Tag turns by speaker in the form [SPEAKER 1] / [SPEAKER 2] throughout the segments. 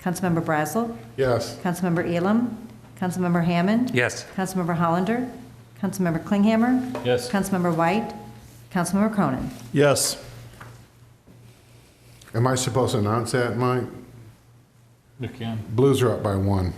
[SPEAKER 1] Councilmember Brazel,
[SPEAKER 2] Yes.
[SPEAKER 1] Councilmember Elam, Councilmember Hammond,
[SPEAKER 3] Yes.
[SPEAKER 1] Councilmember Hollander, Councilmember Klinghammer,
[SPEAKER 4] Yes.
[SPEAKER 1] Councilmember White, Councilmember Cronin.
[SPEAKER 5] Yes.
[SPEAKER 2] Am I supposed to announce that, Mike?
[SPEAKER 4] You can.
[SPEAKER 2] Blues are up by one.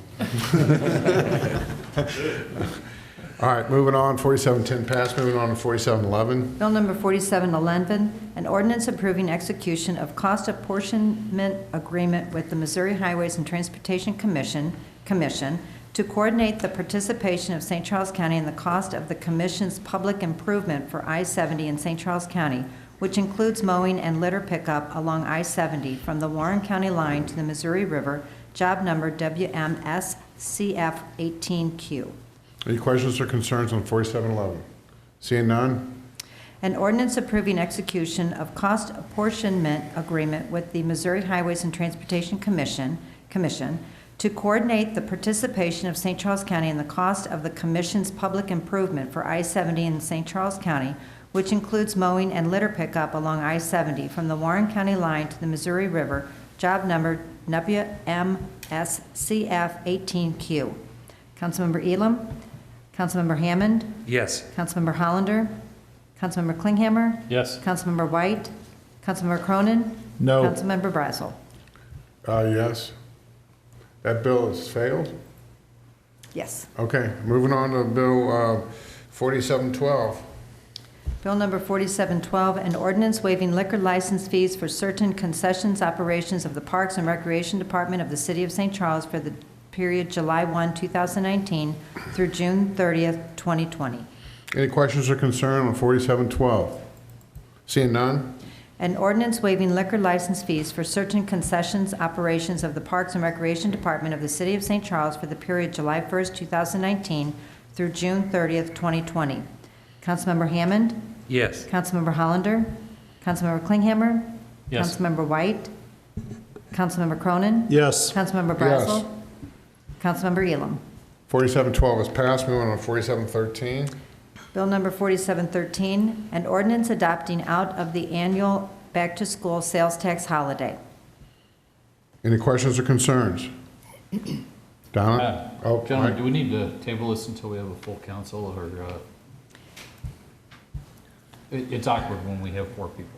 [SPEAKER 2] All right, moving on, 4710 passed, moving on to 4711.
[SPEAKER 1] Bill number 4711, an ordinance approving execution of cost apportionment agreement with the Missouri Highways and Transportation Commission, Commission to coordinate the participation of St. Charles County in the cost of the commission's public improvement for I-70 in St. Charles County, which includes mowing and litter pickup along I-70 from the Warren County line to the Missouri River, job number WMSCF18Q.
[SPEAKER 2] Any questions or concerns on 4711? Seeing none?
[SPEAKER 1] An ordinance approving execution of cost apportionment agreement with the Missouri Highways and Transportation Commission, Commission to coordinate the participation of St. Charles County in the cost of the commission's public improvement for I-70 in St. Charles County, which includes mowing and litter pickup along I-70 from the Warren County line to the Missouri River, job number WMSCF18Q. Councilmember Elam, Councilmember Hammond,
[SPEAKER 3] Yes.
[SPEAKER 1] Councilmember Hollander, Councilmember Klinghammer,
[SPEAKER 4] Yes.
[SPEAKER 1] Councilmember White, Councilmember Cronin,
[SPEAKER 5] No.
[SPEAKER 1] Councilmember Brazel.
[SPEAKER 2] Uh, yes. That bill has failed?
[SPEAKER 1] Yes.
[SPEAKER 2] Okay, moving on to Bill uh, 4712.
[SPEAKER 1] Bill number 4712, an ordinance waiving liquor license fees for certain concessions operations of the Parks and Recreation Department of the City of St. Charles for the period July 1, 2019 through June 30th, 2020.
[SPEAKER 2] Any questions or concern on 4712? Seeing none?
[SPEAKER 1] An ordinance waiving liquor license fees for certain concessions operations of the Parks and Recreation Department of the City of St. Charles for the period July 1st, 2019 through June 30th, 2020. Councilmember Hammond,
[SPEAKER 3] Yes.
[SPEAKER 1] Councilmember Hollander, Councilmember Klinghammer.
[SPEAKER 4] Yes.
[SPEAKER 1] Councilmember White, Councilmember Cronin,
[SPEAKER 5] Yes.
[SPEAKER 1] Councilmember Brazel. Councilmember Elam.
[SPEAKER 2] 4712 is passed, moving on to 4713.
[SPEAKER 1] Bill number 4713, an ordinance adopting out of the annual back-to-school sales tax holiday.
[SPEAKER 2] Any questions or concerns? Donna? Oh,
[SPEAKER 4] Uh, Gentlemen,
[SPEAKER 2] Mike.
[SPEAKER 4] do we need to table this until we have a full council or, uh, it, it's awkward when we have four people.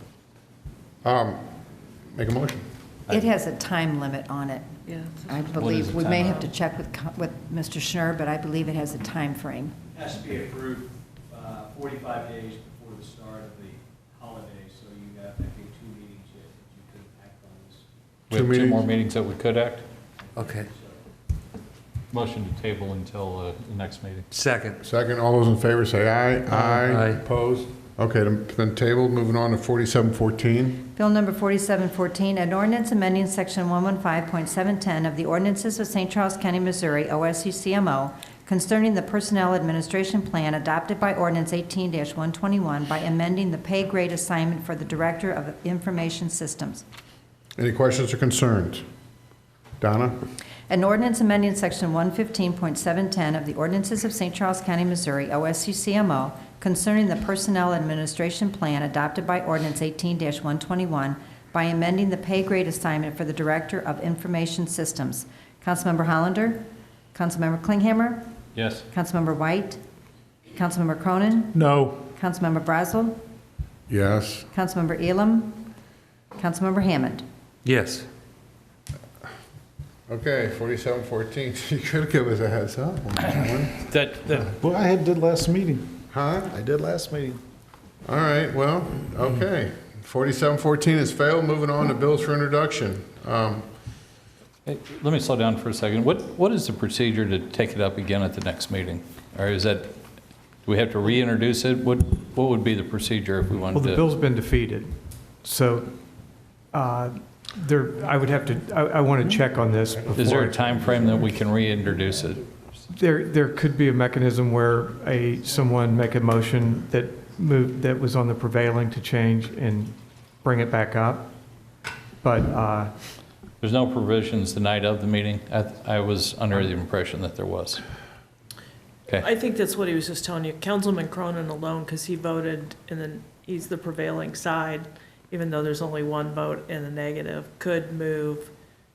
[SPEAKER 2] Um, make a motion.
[SPEAKER 1] It has a time limit on it.
[SPEAKER 6] Yeah.
[SPEAKER 1] I
[SPEAKER 4] is
[SPEAKER 1] believe,
[SPEAKER 4] the
[SPEAKER 1] we may
[SPEAKER 4] time?
[SPEAKER 1] have to check with, co- with Mr. Schnur, but I believe it has a time frame.
[SPEAKER 7] Has to be approved uh, 45 days before the start of the holiday, so you have, I think, two meetings yet that you could act on this.
[SPEAKER 4] We
[SPEAKER 2] Two
[SPEAKER 4] have two more
[SPEAKER 2] meetings.
[SPEAKER 4] meetings that we could act.
[SPEAKER 3] Okay.
[SPEAKER 4] Motion to table until, uh, the next meeting.
[SPEAKER 3] Second.
[SPEAKER 2] Second, all those in favor say aye.
[SPEAKER 3] Aye.
[SPEAKER 2] Opposed? Okay, then- then table, moving on to 4714.
[SPEAKER 1] Bill number 4714, an ordinance amending section 115.710 of the ordinances of St. Charles County, Missouri, OSCCMO, concerning the Personnel Administration Plan adopted by ordinance 18-121 by amending the pay grade assignment for the Director of Information Systems.
[SPEAKER 2] Any questions or concerns? Donna?
[SPEAKER 1] An ordinance amending section 115.710 of the ordinances of St. Charles County, Missouri, OSCCMO, concerning the Personnel Administration Plan adopted by ordinance 18-121 by amending the pay grade assignment for the Director of Information Systems. Councilmember Hollander, Councilmember Klinghammer,
[SPEAKER 4] Yes.
[SPEAKER 1] Councilmember White, Councilmember Cronin,
[SPEAKER 5] No.
[SPEAKER 1] Councilmember Brazel,
[SPEAKER 2] Yes.
[SPEAKER 1] Councilmember Elam, Councilmember Hammond.
[SPEAKER 3] Yes.
[SPEAKER 2] Okay, 4714. You could give us a heads up. on that one.
[SPEAKER 4] That, that.
[SPEAKER 5] Well, I had did last meeting.
[SPEAKER 2] Huh?
[SPEAKER 5] I did last meeting.
[SPEAKER 2] All right, well, okay. 4714 has failed, moving on to bills for introduction. Um,
[SPEAKER 4] Let me slow down for a second. What, what is the procedure to take it up again at the next meeting? Or is that, do we have to reintroduce it? What, what would be the procedure if we
[SPEAKER 8] Well,
[SPEAKER 4] wanted
[SPEAKER 8] the
[SPEAKER 4] to?
[SPEAKER 8] bill's been defeated, so uh, there, I would have to, I want to check on this
[SPEAKER 4] Is there
[SPEAKER 8] before.
[SPEAKER 4] a time frame that we can reintroduce it?
[SPEAKER 8] There, there could be a mechanism where a, someone make a motion that moved, that was on the prevailing to change and bring it back up. But uh,
[SPEAKER 4] There's no provisions the night of the meeting? I I was under the impression that there was. Okay,
[SPEAKER 6] I think that's what he was just telling you. Councilman Cronin alone, because he voted, and then he's the prevailing side, even though there's only one vote in the negative, could move